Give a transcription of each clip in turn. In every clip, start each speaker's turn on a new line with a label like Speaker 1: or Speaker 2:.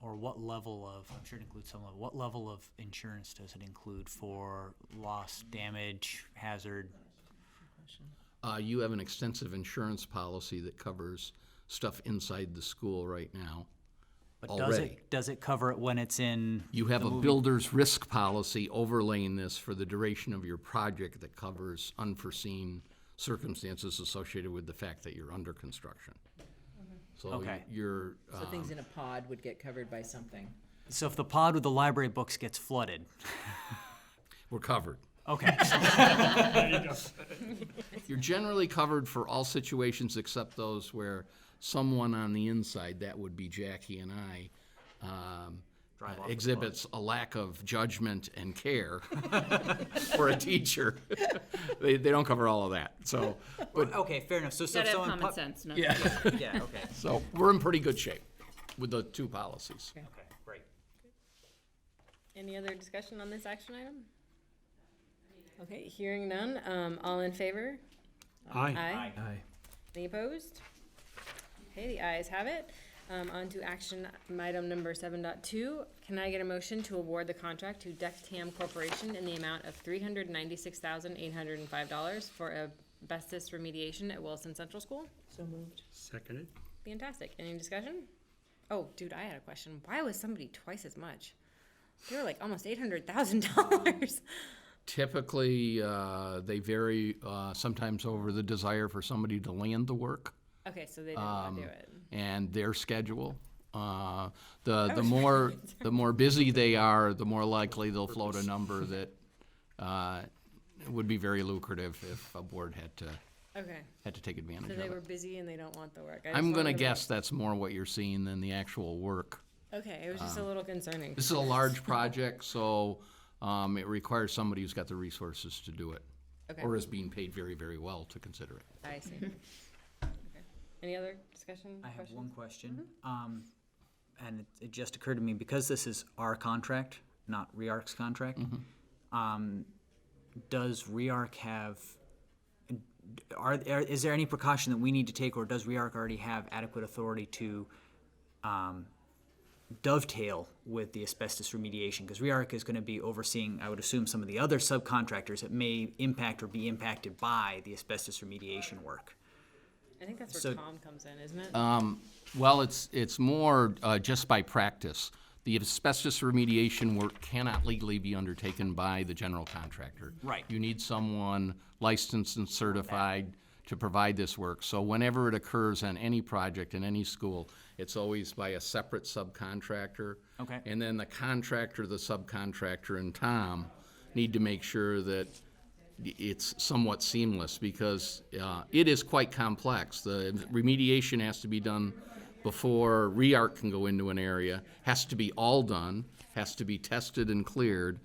Speaker 1: or what level of, I'm sure it includes some level, what level of insurance does it include for loss, damage, hazard?
Speaker 2: Uh, you have an extensive insurance policy that covers stuff inside the school right now.
Speaker 1: But does
Speaker 2: Already.
Speaker 1: it, does it cover it when it's in,
Speaker 2: You have a builder's risk policy overlaying this for the duration of your project that covers unforeseen circumstances associated with the fact that you're under construction. So
Speaker 1: Okay.
Speaker 2: you're,
Speaker 3: So
Speaker 2: uh,
Speaker 3: things in a pod would get covered by something.
Speaker 1: so if the pod with the library books gets flooded?
Speaker 2: we're covered.
Speaker 1: Okay,
Speaker 2: You're generally covered for all situations except those where someone on the inside, that would be Jackie and I, um, exhibits a lack of judgment and care for a teacher. They, they don't cover all of that, so, but,
Speaker 1: okay, fair enough. So, so if
Speaker 4: Gotta have
Speaker 1: someone.
Speaker 4: common
Speaker 1: pop-
Speaker 4: sense. No.
Speaker 2: yeah,
Speaker 1: Yeah, okay,
Speaker 2: so we're in pretty good shape with the two policies.
Speaker 1: okay, great.
Speaker 5: Any other discussion on this action item? Okay, hearing none, um, all in favor? Aye.
Speaker 6: Aye.
Speaker 5: Any opposed? Okay, the ayes have it. Um, on to action item number seven dot two. Can I get a motion to award the contract to Dectam Corporation in the amount of three hundred ninety-six thousand eight hundred and five dollars for asbestos remediation at Wilson Central School?
Speaker 3: So moved.
Speaker 6: Seconded.
Speaker 5: Fantastic. Any discussion? Oh, dude, I had a question. Why was somebody twice as much? They were like almost eight hundred thousand dollars.
Speaker 2: Typically, uh, they vary, uh, sometimes over the desire for somebody to land the work.
Speaker 5: Okay, so they didn't want
Speaker 6: Um,
Speaker 5: to do it.
Speaker 2: and their schedule. Uh, the the more the more busy they are, the more likely they'll float a number that uh, would be very lucrative if a board had to
Speaker 5: Okay,
Speaker 2: had to take advantage
Speaker 5: so
Speaker 2: of
Speaker 5: they were
Speaker 2: it.
Speaker 5: busy and they don't want the work. I just
Speaker 2: I'm
Speaker 5: wanted
Speaker 2: gonna
Speaker 5: to
Speaker 2: guess that's more what you're seeing than the actual work.
Speaker 5: make- Okay, it was just a little concerning.
Speaker 2: Um, This is a large project, so um, it requires somebody who's got the resources to do it,
Speaker 5: Okay,
Speaker 2: or is being paid very very well to consider it.
Speaker 5: I see. Okay. Any other discussion?
Speaker 1: I have
Speaker 5: questions?
Speaker 1: one question. Um, and it, it just occurred to me, because this is our contract, not REARC's contract, um, does REARC have, are, are, is there any precaution that we need to take, or does REARC already have adequate authority to, um, dovetail with the asbestos remediation? Because REARC is gonna be overseeing, I would assume, some of the other subcontractors that may impact or be impacted by the asbestos remediation work.
Speaker 5: I think that's
Speaker 1: so-
Speaker 5: where Tom comes in, isn't it?
Speaker 2: uh, Well, it's, it's more uh, just by practice. The asbestos remediation work cannot legally be undertaken by the general contractor.
Speaker 1: Right.
Speaker 2: You need someone licensed and certified to provide this work. So whenever it occurs on any project in any school, it's always by a separate subcontractor.
Speaker 1: Okay.
Speaker 2: And then the contractor, the subcontractor, and Tom need to make sure that it's somewhat seamless because uh, it is quite complex. The remediation has to be done before REARC can go into an area, has to be all done, has to be tested and cleared,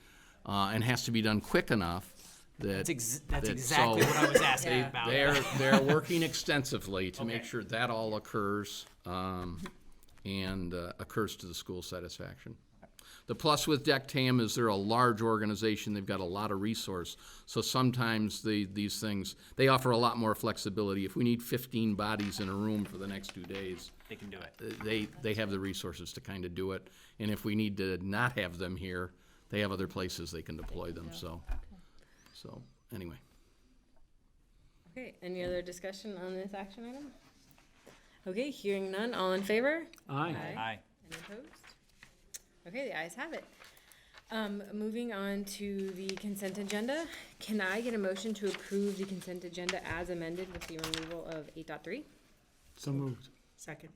Speaker 2: uh, and has to be done quick enough that.
Speaker 1: That's, ex- that's
Speaker 2: that-
Speaker 1: exactly
Speaker 2: so
Speaker 1: what I was asking about.
Speaker 2: They're, they're working extensively to make
Speaker 1: Okay.
Speaker 2: sure that all occurs, um, and uh, occurs to the school's satisfaction. The plus with DECTAM is they're a large organization, they've got a lot of resource, so sometimes the, these things, they offer a lot more flexibility. If we need fifteen bodies in a room for the next two days,
Speaker 1: They can do it.
Speaker 2: uh, they, they have the resources to kind of do it. And if we need to not have them here, they have other places they can deploy them, so, so, anyway.
Speaker 5: Okay, any other discussion on this action item? Okay, hearing none, all in favor?
Speaker 6: Aye.
Speaker 5: Aye.
Speaker 1: Aye.
Speaker 5: Any opposed? Okay, the ayes have it. Um, moving on to the consent agenda, can I get a motion to approve the consent agenda as amended with the removal of eight dot three?
Speaker 6: So moved.
Speaker 3: Second.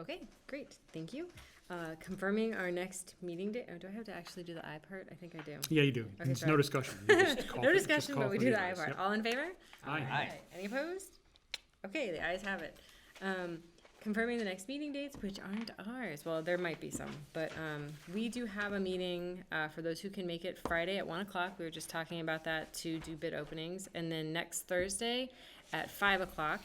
Speaker 5: Okay, great, thank you. Uh, confirming our next meeting day, oh, do I have to actually do the I part? I think I do.
Speaker 6: Yeah, you do.
Speaker 5: Okay,
Speaker 6: It's
Speaker 5: sorry.
Speaker 6: no discussion. You just call
Speaker 5: No
Speaker 6: for- just
Speaker 5: discussion,
Speaker 6: call
Speaker 5: but we
Speaker 6: for
Speaker 5: do
Speaker 6: the
Speaker 5: the I
Speaker 6: ayes.
Speaker 5: part.
Speaker 6: Yep.
Speaker 5: All in favor?
Speaker 6: Aye.
Speaker 5: Aye. Any opposed? Okay, the ayes have it. Um, confirming the next meeting dates, which aren't ours. Well, there might be some, but, um, we do have a meeting, uh, for those who can make it Friday at one o'clock. We were just talking about that to do bid openings. And then next Thursday at five o'clock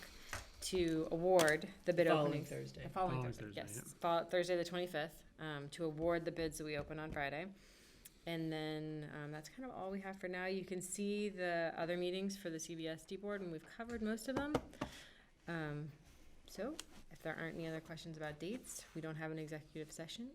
Speaker 5: to award the bid
Speaker 3: Following
Speaker 5: openings.
Speaker 3: Thursday.
Speaker 5: The Following
Speaker 6: Following
Speaker 5: Thursday,
Speaker 6: Thursday,
Speaker 5: yes. Fol- Thursday, the twenty-fifth, um, to award the bids that we open on Friday. And then um, that's kind of all we have for now. You can see the other meetings for the CBSD board, and we've covered most of them. Um, so, if there aren't any other questions about dates, we don't have an executive session.